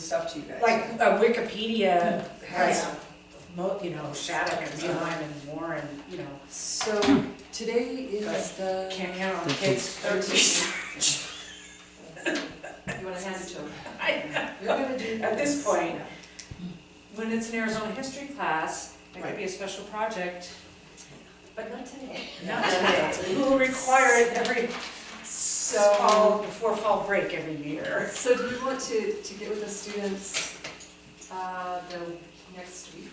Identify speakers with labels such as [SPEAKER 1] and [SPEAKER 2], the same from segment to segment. [SPEAKER 1] stuff to you guys.
[SPEAKER 2] Like uh, Wikipedia has,
[SPEAKER 1] Yeah.
[SPEAKER 2] mo- you know, Shattuck and Beeline and Warren, you know,
[SPEAKER 1] So today is the.
[SPEAKER 2] can't count on
[SPEAKER 3] The
[SPEAKER 2] kids.
[SPEAKER 1] kids.
[SPEAKER 4] You wanna hand it to him?
[SPEAKER 1] You're gonna do
[SPEAKER 2] At this point, when it's an Arizona history class, it could
[SPEAKER 1] Right.
[SPEAKER 2] be a special project.
[SPEAKER 4] But not today.
[SPEAKER 2] Not today. We'll require it every fall,
[SPEAKER 1] So,
[SPEAKER 2] before fall break every year.
[SPEAKER 4] So do you want to, to get with the students, uh, the next week?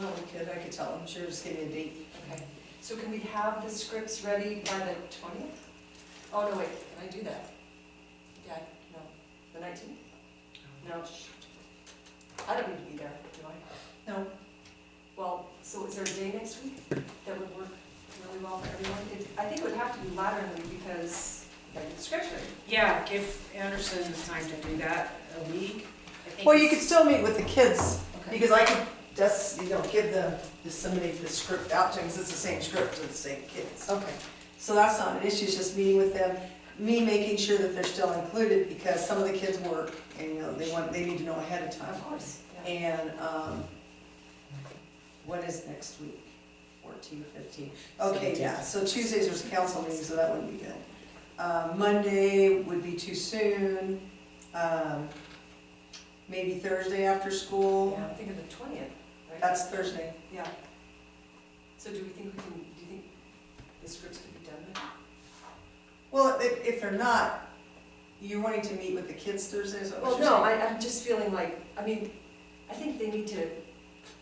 [SPEAKER 1] well, we could, I could tell them, sure, just give me a date.
[SPEAKER 4] Okay, so can we have the scripts ready by the twentieth? Oh, no, wait, can I do that? Yeah, no, the nineteenth? No, shoot. I don't need to be there, do I?
[SPEAKER 1] No.
[SPEAKER 4] Well, so is there a day next week that would work really well for everyone? It- I think it would have to be latter in the week because, like, the scripts ready.
[SPEAKER 2] Yeah, give Anderson time to do that a week. I think
[SPEAKER 1] Well, you could
[SPEAKER 2] it's-
[SPEAKER 1] still meet with the kids,
[SPEAKER 4] Okay.
[SPEAKER 1] because I could just, you know, give them, disseminate the script out to them, because it's the same script to the same kids.
[SPEAKER 4] Okay.
[SPEAKER 1] So that's not an issue, it's just meeting with them, me making sure that they're still included, because some of the kids work, and, you know, they want, they need to know ahead of time.
[SPEAKER 4] Of course, yeah.
[SPEAKER 1] And, um, what is next week? Fourteen, fifteen? Okay,
[SPEAKER 3] Seventeenth.
[SPEAKER 1] yeah, so Tuesdays was council meeting, so that wouldn't be good. Uh, Monday would be too soon, um, maybe Thursday after school,
[SPEAKER 4] Yeah, I'm thinking the twentieth, right?
[SPEAKER 1] that's Thursday.
[SPEAKER 4] Yeah. So do we think we can, do you think the scripts could be done by
[SPEAKER 1] Well, if, if they're not, you're wanting to meet with the kids Thursday, is that
[SPEAKER 4] Well,
[SPEAKER 1] what
[SPEAKER 4] no,
[SPEAKER 1] you're
[SPEAKER 4] I,
[SPEAKER 1] saying?
[SPEAKER 4] I'm just feeling like, I mean, I think they need to,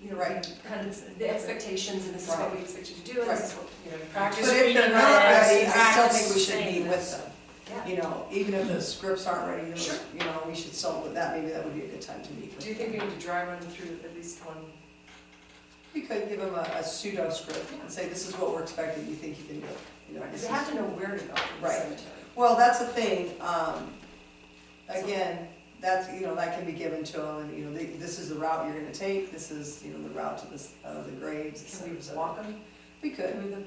[SPEAKER 4] you know,
[SPEAKER 1] Right.
[SPEAKER 4] kind of the expectations, and this is what we expect you to do, and this is what, you know,
[SPEAKER 2] Practice
[SPEAKER 1] But if they're
[SPEAKER 2] reading
[SPEAKER 1] not
[SPEAKER 2] this,
[SPEAKER 1] ready, I still think we
[SPEAKER 2] practice
[SPEAKER 1] should
[SPEAKER 2] saying
[SPEAKER 1] meet with
[SPEAKER 2] this.
[SPEAKER 1] them.
[SPEAKER 4] yeah.
[SPEAKER 1] You know, even if the scripts aren't ready, those-
[SPEAKER 4] Sure.
[SPEAKER 1] you know, we should still, with that, maybe that would be a good time to meet with
[SPEAKER 4] Do you think we need to dry run through at least one?
[SPEAKER 1] You could give them a a pseudo script and say, this is what we're expecting, you think you can do it. You know,
[SPEAKER 4] Because
[SPEAKER 1] this
[SPEAKER 4] they
[SPEAKER 1] is-
[SPEAKER 4] have to know where to go in the
[SPEAKER 1] Right.
[SPEAKER 4] cemetery.
[SPEAKER 1] Well, that's the thing, um, again, that's, you know, that can be given to them, and, you know, they- this is the route you're gonna take, this is, you know, the route to this, uh, the graves, et
[SPEAKER 4] Can
[SPEAKER 1] cetera, et
[SPEAKER 4] we
[SPEAKER 1] cetera.
[SPEAKER 4] walk them
[SPEAKER 1] We could,
[SPEAKER 4] through the?
[SPEAKER 1] we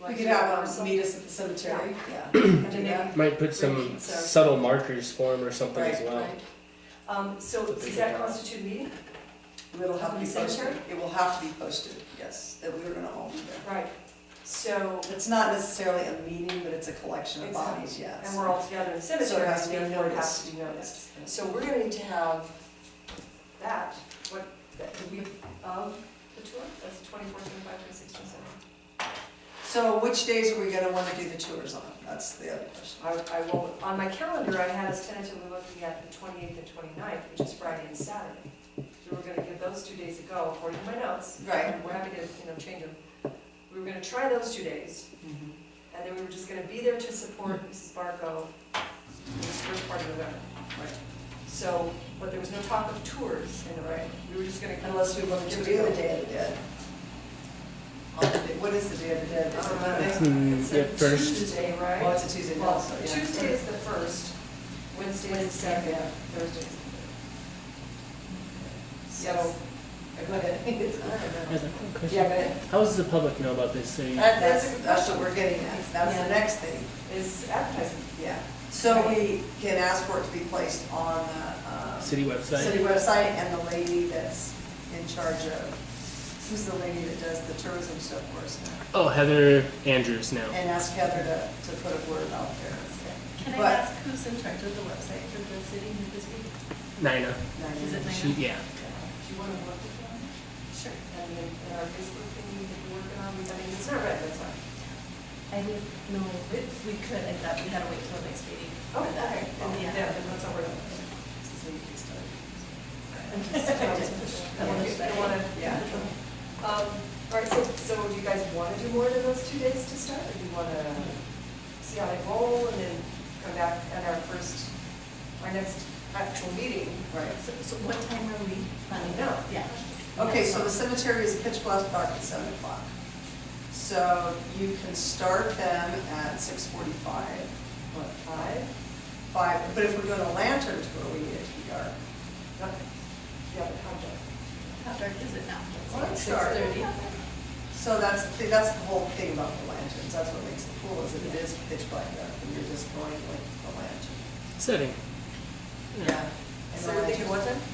[SPEAKER 4] like,
[SPEAKER 1] could
[SPEAKER 4] or
[SPEAKER 1] have them
[SPEAKER 4] something?
[SPEAKER 1] meet us at the cemetery, yeah.
[SPEAKER 4] And then maybe
[SPEAKER 3] Might put some
[SPEAKER 4] So-
[SPEAKER 3] subtle markers for him or something as
[SPEAKER 1] Right,
[SPEAKER 3] well.
[SPEAKER 4] Right. Um, so
[SPEAKER 3] It's a
[SPEAKER 4] does
[SPEAKER 3] big
[SPEAKER 4] that
[SPEAKER 3] job.
[SPEAKER 4] constitute a meeting?
[SPEAKER 1] It'll have to be
[SPEAKER 4] The cemetery?
[SPEAKER 1] posted, it will have to be posted, yes, that we were gonna all be there.
[SPEAKER 4] Right, so,
[SPEAKER 1] It's not necessarily a meeting, but it's a collection of
[SPEAKER 4] It's a-
[SPEAKER 1] bodies, yes.
[SPEAKER 4] and we're all together in the
[SPEAKER 1] So
[SPEAKER 4] cemetery,
[SPEAKER 1] it has to be
[SPEAKER 4] and therefore it has to be noticed.
[SPEAKER 1] noticed. yes.
[SPEAKER 4] So we're going to need to have that, what, the week of the tour, that's the 24, 25, 26, 27.
[SPEAKER 1] So which days are we gonna wanna do the tours on? That's the other question.
[SPEAKER 4] I, I will, on my calendar, I had us tentatively looking at the 28th and 29th, which is Friday and Saturday. So we're going to give those two days a go, according to my notes.
[SPEAKER 1] Right.
[SPEAKER 4] And We're happy to, you know, change them. We were going to try those two days,
[SPEAKER 1] Mm-hmm.
[SPEAKER 4] and then we were just going to be there to support Mrs. Barco in this first part of November.
[SPEAKER 1] Right.
[SPEAKER 4] So, but there was no talk of tours in the right. We were just going to.
[SPEAKER 1] Unless we want to do the Day of the Dead. On the day- What is the Day of the Dead? Is it
[SPEAKER 3] It's
[SPEAKER 1] Monday?
[SPEAKER 3] the
[SPEAKER 4] It's
[SPEAKER 3] yeah,
[SPEAKER 4] a
[SPEAKER 3] first.
[SPEAKER 4] Tuesday,
[SPEAKER 1] Well,
[SPEAKER 4] right?
[SPEAKER 1] it's a Uh, Tuesday now,
[SPEAKER 4] Well,
[SPEAKER 1] so yeah.
[SPEAKER 4] Tuesday is the first, Wednesday is the second,
[SPEAKER 1] Yeah.
[SPEAKER 4] Thursday is the third. So,
[SPEAKER 1] Yes. Go ahead.
[SPEAKER 3] Guys, I have a question.
[SPEAKER 4] yeah, but
[SPEAKER 3] How does the public know about this thing?
[SPEAKER 1] That- That's, that's what we're getting at. That's
[SPEAKER 4] Yeah.
[SPEAKER 1] the next thing,
[SPEAKER 4] it's advertising.
[SPEAKER 1] yeah. So we can ask for it to be placed on the, uh,
[SPEAKER 3] City
[SPEAKER 1] city
[SPEAKER 3] website?
[SPEAKER 1] website and the lady that's in charge of, who's the lady that does the tourism stuff for us now?
[SPEAKER 3] Oh, Heather Andrews now.
[SPEAKER 1] And ask Heather to, to put a word out there.
[SPEAKER 5] Can I
[SPEAKER 1] But-
[SPEAKER 5] ask who's in charge of the website for the city and this week?
[SPEAKER 3] Nina.
[SPEAKER 5] Is it
[SPEAKER 3] She,
[SPEAKER 5] Nina?
[SPEAKER 3] yeah.
[SPEAKER 4] Do you want to work with them?
[SPEAKER 5] Sure.
[SPEAKER 4] And then in our Facebook thing that we're working on, we I mean, it's not red, that's fine.
[SPEAKER 5] I didn't know if we could, I thought we had to wait till the next meeting.
[SPEAKER 4] Oh, okay.
[SPEAKER 5] Well,
[SPEAKER 4] And
[SPEAKER 5] yeah.
[SPEAKER 4] yeah, then let's not worry about it. I want to.
[SPEAKER 1] Yeah.
[SPEAKER 4] Um, all right, so, so do you guys want to do more than those two days to start, or do you want to see how they roll and then come back at our first, our next actual meeting?
[SPEAKER 1] Right.
[SPEAKER 5] So, so what time are we planning?
[SPEAKER 4] No.
[SPEAKER 5] Yeah.
[SPEAKER 1] Okay, so the cemetery is pitch black dark at seven o'clock. So you can start them at six forty-five,
[SPEAKER 4] What, five?
[SPEAKER 1] five, but if we're doing a lantern tour, we need it to be dark.
[SPEAKER 4] Okay. Yeah, but how dark?
[SPEAKER 5] How dark is it now?
[SPEAKER 1] Well, it's
[SPEAKER 5] Six
[SPEAKER 1] dark.
[SPEAKER 5] thirty?
[SPEAKER 1] So that's, the- that's the whole thing about the lanterns, that's what makes it cool, is that it is pitch black dark, and you're just going with the lantern.
[SPEAKER 3] Setting.
[SPEAKER 1] Yeah. And
[SPEAKER 4] So
[SPEAKER 1] the
[SPEAKER 4] would they
[SPEAKER 1] lantern
[SPEAKER 4] wasn't?